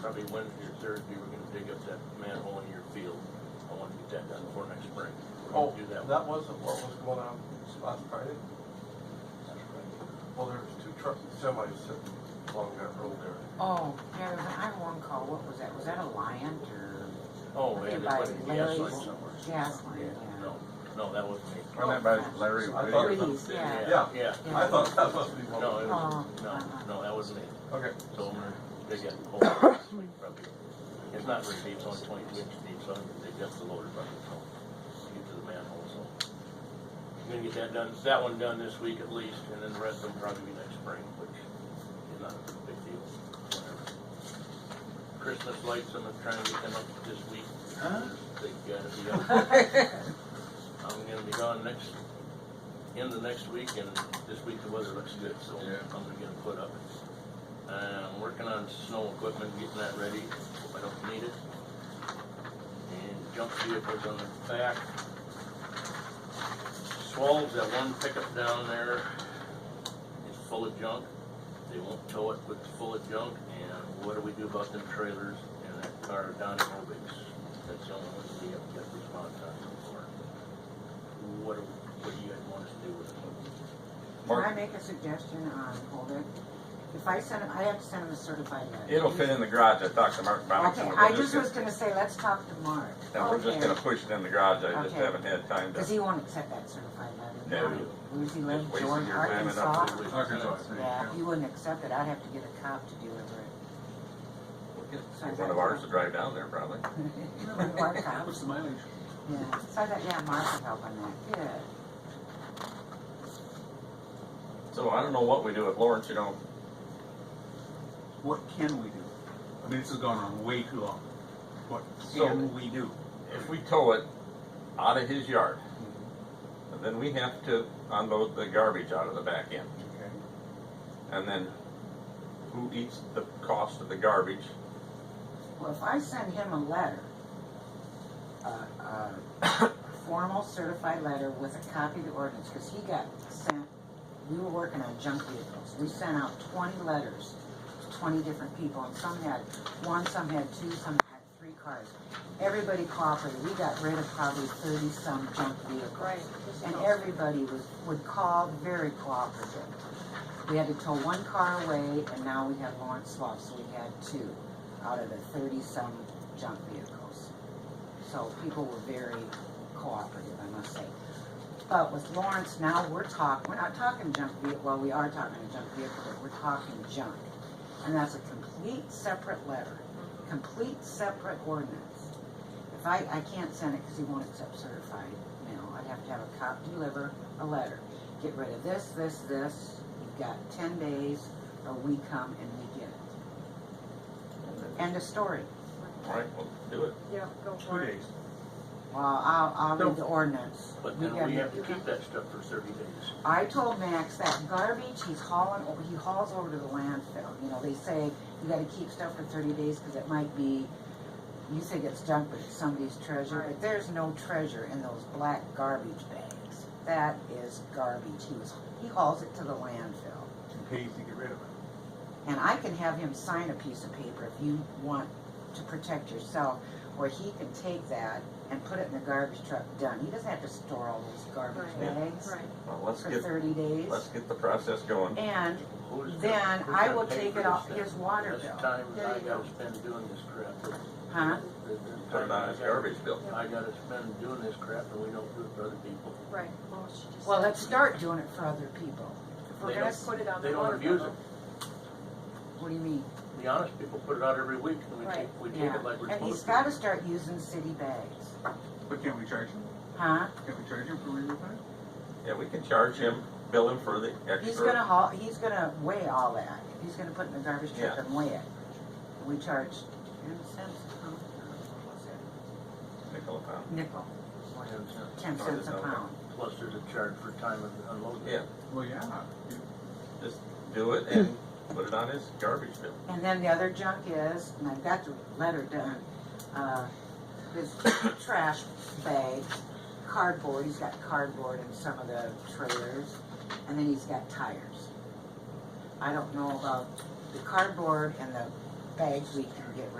probably Wednesday or Thursday, we're gonna dig up that manhole in your field. I want to get that done before next spring. We're Oh, gonna do that. that wasn't what was going on last Friday? Well, there was two trucks, semis sitting along that road there. Oh, yeah, there was, I had one call, what was that, was that a lion or Oh, man, by there's like a gas Larry's. line somewhere. gas line, No, yeah. no, that wasn't me. Wasn't that by Larry I Whittier? thought- Please, yeah. Yeah. Yeah, I thought that must be no, one. of it them. was, Oh. no, no, that wasn't me. Okay, So I'm gonna dig up the hole, it's like probably, it's not very deep, it's only twenty-two inches deep, so I'm gonna dig up the loader bucket, so, get to the manhole, so. I'm gonna get that done, that one done this week at least, and then the rest of them probably be next spring, which is not a big deal, whatever. Christmas lights, I'm gonna try and get them up this week. They gotta be up. I'm gonna be gone next, end of next week, and this week the weather looks good, so Yeah. I'm gonna get them put up. Uh, I'm working on snow equipment, getting that ready, if I don't need it. And jump vehicles on the back. Swallows, that one pickup down there is full of junk. They won't tow it, but it's full of junk, and what do we do about them trailers and that car down in Obix? That's the only one we have got response on so far. What, do- what do you guys want us to do with it? Can I Mark, make a suggestion on, hold it? If I send, 'em- I have to send them a certified letter. it'll fit in the garage. I talked to Mark about it. Okay, and I we're just was just gonna say, let's talk to Mark. gonna- And we're just Okay. gonna push it in the garage. I just Okay. haven't had time Cause to. he won't accept that certified letter. No. Where's he live, Just wasting Jordan, your time and Arkansas? up to- Yeah, he wouldn't accept it, I'd have to get a cop to deliver it. One of ours to drive down there probably. Mark How out, much the mileage? yeah, so I thought, yeah, Mark would help on that, good. So I don't know what we do with Lawrence, you know. What can we do? I mean, this has gone on way too long. What So- can we do? If we tow it out of his yard, then we have to unload the garbage out of the back end. And then who eats the cost of the garbage? Well, if I send him a letter, a, a formal certified letter with a copy of the ordinance, because he got sent, we were working on junk vehicles. We sent out twenty letters to twenty different people, and some had one, some had two, some had three cars. Everybody cooperated. We got rid of probably thirty-some junk vehicles. Right. And everybody was, would call very cooperative. We had to tow one car away, and now we have Lawrence Slough, so we had two out of the thirty-some junk vehicles. So people were very cooperative, I must say. But with Lawrence, now we're talking, we're not talking junk vehicle, well, we are talking a junk vehicle, but we're talking junk. And that's a complete separate letter, complete separate ordinance. If I, I can't send it because he won't accept certified mail, I'd have to have a cop deliver a letter. Get rid of this, this, this, you've got ten days, or we come and we get it. End of story. All right, well, do it. Yeah, go Two for it. days. Well, I'll, I'll read the ordinance. But You then got we it. have to keep that stuff for thirty days. I told Max that garbage he's hauling, o- he hauls over to the landfill. You know, they say you gotta keep stuff for thirty days because it might be, you think it's junk, but it's somebody's treasure. But Right. there's no treasure in those black garbage bags. That is garbage. He was, he hauls it to the landfill. Two days to get rid of it. And I can have him sign a piece of paper if you want to protect yourself, where he can take that and put it in the garbage truck, done. He doesn't have to store all those garbage Right. bags Right. Well, let's for get, thirty days. let's get the process going. And Who's gonna- Then who's I gonna will pay take for it this off thing? his water This bill. time There I you go. gotta spend doing this crap. Huh? Put it on his garbage bill. I gotta spend doing this crap and we don't do it for other people. Right. Well, she just Well, said- let's start doing it for other people. If we're They gonna don't- put it on They the don't water abuse bill. it. What do you mean? The honest people put it out every week and we take, Right. we take Yeah. it like we're supposed to. And he's gotta start using city bags. But can't we charge him? Huh? Can't we charge him for removing it? Yeah, we can charge him, bill him for the He's gonna extra. haul, he's gonna weigh all that. He's gonna put it in the garbage truck Yeah. and weigh it. We charge ten cents a pound. What was it? Nickel a pound. Nickel, Ten cents. ten Or cents a no. pound. Plus there's a charge for time of unloading. Yeah, Well, yeah. just do it and put it on his garbage bill. And then the other junk is, and I've got the letter done, uh, his trash bags, cardboard, he's got cardboard in some of the trailers, and then he's got tires. I don't know about the cardboard and the bags we can get rid